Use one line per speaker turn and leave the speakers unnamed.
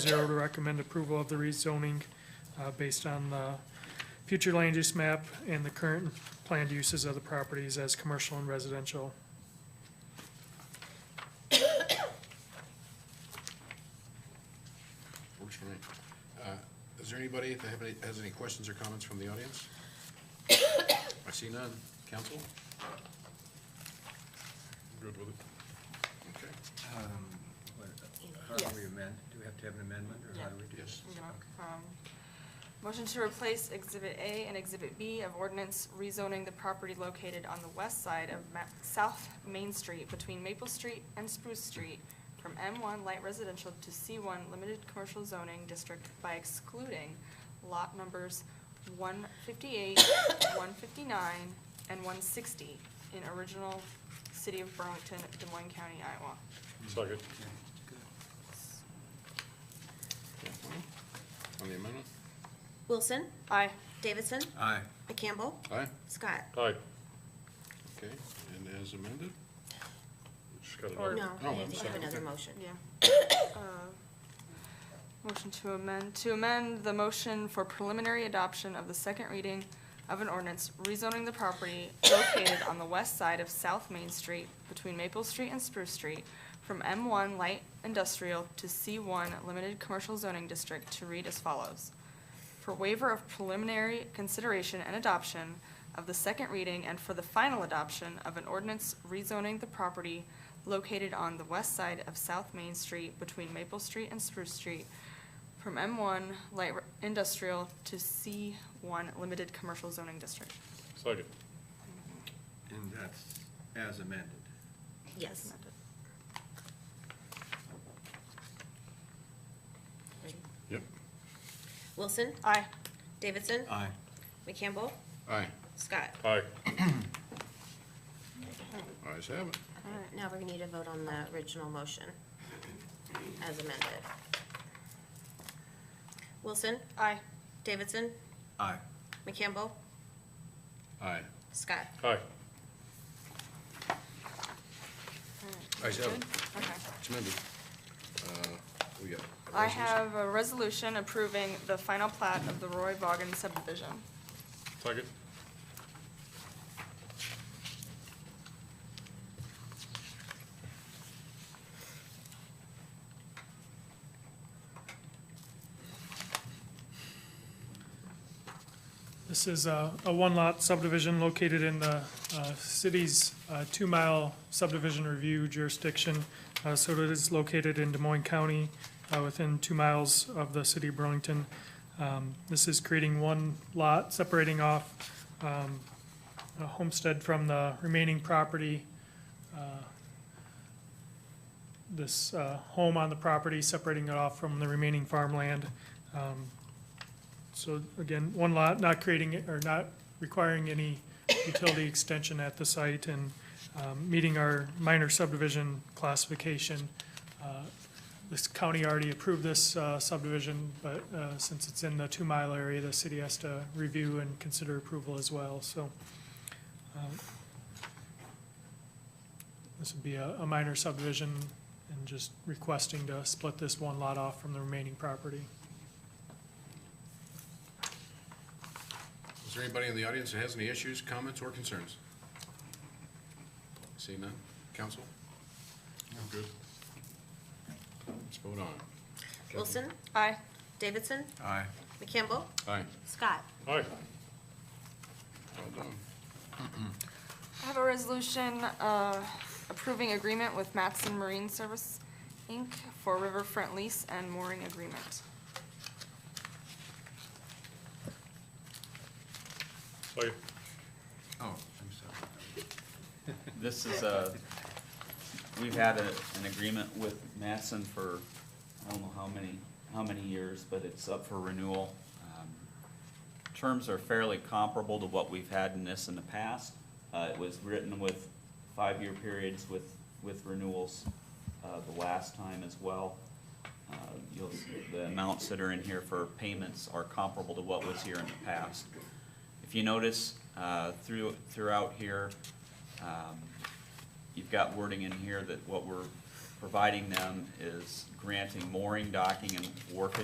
zero to recommend approval of the rezoning uh, based on the future land use map and the current planned uses of the properties as commercial and residential.
Works for me. Uh, Is there anybody that have any, has any questions or comments from the audience? I see none. Council. Good with it. Okay,
Um, what- How do we amend? Do we have to have an amendment, or how do we do
yes.
this?
No, um, Motion to replace Exhibit A and Exhibit B of ordinance rezoning the property located on the west side of Ma- South Main Street between Maple Street and Spruce Street from M1 Light Residential to C1 Limited Commercial Zoning District by excluding lot numbers 158, 159, and 160 in original City of Burlington, Des Moines County, Iowa.
Second.
Okay, good.
On the amendment?
Wilson,
Aye.
Davidson,
Aye.
McCampbell,
Aye?
Scott.
Aye.
Okay, and as amended?
Just got
Or-
another.
Oh,
No, I
I'm
think you
sorry.
have another motion.
Yeah. Uh, Motion to amend, to amend the motion for preliminary adoption of the second reading of an ordinance rezoning the property located on the west side of South Main Street between Maple Street and Spruce Street from M1 Light Industrial to C1 Limited Commercial Zoning District to read as follows for waiver of preliminary consideration and adoption of the second reading and for the final adoption of an ordinance rezoning the property located on the west side of South Main Street between Maple Street and Spruce Street from M1 Light Industrial to C1 Limited Commercial Zoning District.
Second.
And that's as amended.
Yes.
Yep.
Wilson,
Aye.
Davidson,
Uh.
Aye.
McCampbell,
Aye.
Scott.
Aye.
Ayes have it.
Now we're gonna need a vote on the original motion as amended. Wilson,
Aye.
Davidson,
Aye.
McCampbell,
Aye.
Scott.
Aye.
Ayes have it.
Okay.
It's amended. Uh, We got. a
I
resolution.
have a resolution approving the final plat of the Roy Vaughan subdivision.
Second.
This is a, a one-lot subdivision located in the uh, city's uh, two-mile subdivision review jurisdiction. Uh, So it is located in Des Moines County, uh, within two miles of the city of Burlington. Um, This is creating one lot, separating off um, a homestead from the remaining property. Uh, This uh, home on the property, separating it off from the remaining farmland. Um, so again, one lot, not creating, or not requiring any utility extension at the site and um, meeting our minor subdivision classification. Uh, This county already approved this uh, subdivision, but uh, since it's in the two-mile area, the city has to review and consider approval as well, so. um, This would be a a minor subdivision and just requesting to split this one lot off from the remaining property.
Is there anybody in the audience that has any issues, comments, or concerns? See none? Council? I'm good. Let's vote on it.
Wilson,
Aye.
Davidson,
Aye.
McCampbell,
Aye.
Scott.
Aye.
Well done.
I have a resolution uh, approving agreement with Matson Marine Service, Inc. for riverfront lease and mooring agreement.
Second.
Oh, I'm sorry.
This is a, we've had a, an agreement with Matson for, I don't know how many, how many years, but it's up for renewal. Um, Terms are fairly comparable to what we've had in this in the past. Uh, it was written with five-year periods with, with renewals, uh, the last time as well. Uh, You'll, the amounts that are in here for payments are comparable to what was here in the past. If you notice, uh, through, throughout here, um, you've got wording in here that what we're providing them is granting mooring, docking, and wharfage